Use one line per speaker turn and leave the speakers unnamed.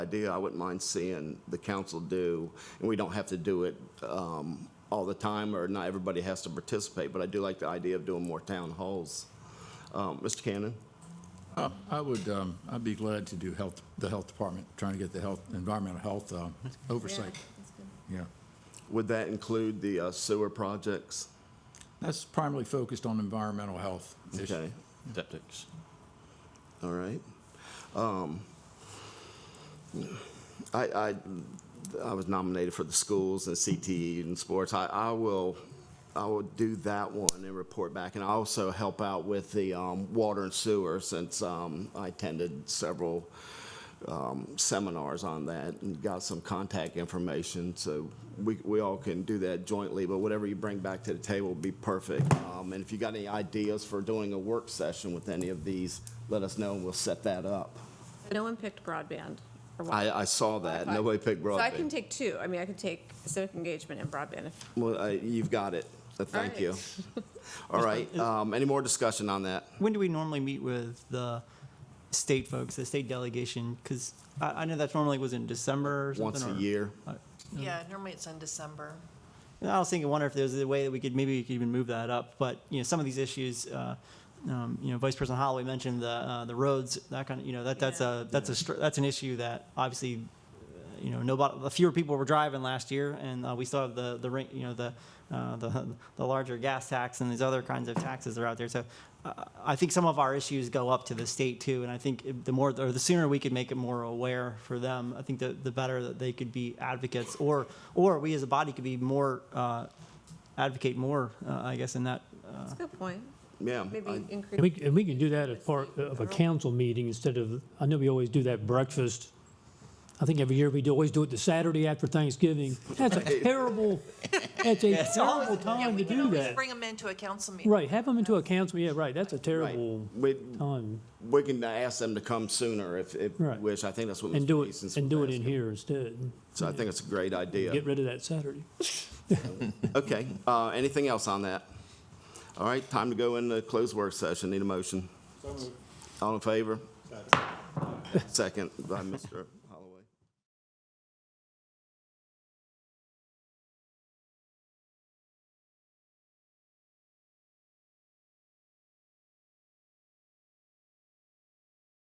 idea I wouldn't mind seeing the council do, and we don't have to do it um, all the time, or not everybody has to participate, but I do like the idea of doing more town halls. Um, Mr. Cannon?
Uh, I would, um, I'd be glad to do health, the health department, trying to get the health, environmental health uh, oversight. Yeah.
Would that include the uh, sewer projects?
That's primarily focused on environmental health issues.
Okay,
Septics.
all right. Um, I, I, I was nominated for the schools and CTE and sports. I, I will, I will do that one and report back. And I also help out with the um, water and sewer since um, I attended several um, seminars on that and got some contact information. So we, we all can do that jointly, but whatever you bring back to the table will be perfect. Um, And if you got any ideas for doing a work session with any of these, let us know and we'll set that up.
No one picked broadband. or
I,
Wi-Fi.
I saw that. Nobody picked
So I can
broadband.
take two. I mean, I could take civic engagement and broadband. if-
Well, I- you've got it. So Thank you. All right, um, any more discussion on that?
When do we normally meet with the state folks, the state delegation? Because I, I know that's normally was in December or something.
Once a
or-
year?
Yeah, normally it's in December.
And I was thinking, wonder if there's a way that we could maybe we could even move that up. But you know, some of these issues, uh, um, you know, Vice President Holloway mentioned the uh, the roads, that kind of, you know, that that's a that's a str- that's an issue that obviously, uh, you know, nobody, fewer people were driving last year, and uh, we still have the the ra- you know the. Uh, the the larger gas tax and these other kinds of taxes that are out there. So uh, I think some of our issues go up to the state too, and I think if- the more or the sooner we could make it more aware for them, I think the the better that they could be advocates, or or we as a body could be more uh, advocate more, uh, I guess, in that. Uh,
That's a good point.
Yeah. I-
Maybe
And we,
increase.
c- and we can do that as part of a council meeting instead of, I know we always do that breakfast. I think every year we do, always do it the Saturday after Thanksgiving. That's a terrible, that's a
it's always-
terrible
Yeah,
time
we
to
can
do
always
that.
Bring them into a council meeting.
Right, have them into a council, yeah, right, that's a
Right.
terrible
We,
time.
we can ask them to come sooner if, if
Right.
wish. I think that's what
And
Mr.
do it,
Beason's
and do it in
asking.
here instead.
So I think it's a great idea.
Get rid of that Saturday.
Okay, uh, anything else on that? All right, time to go into closed work session, need a motion? All in favor? Second by Mr.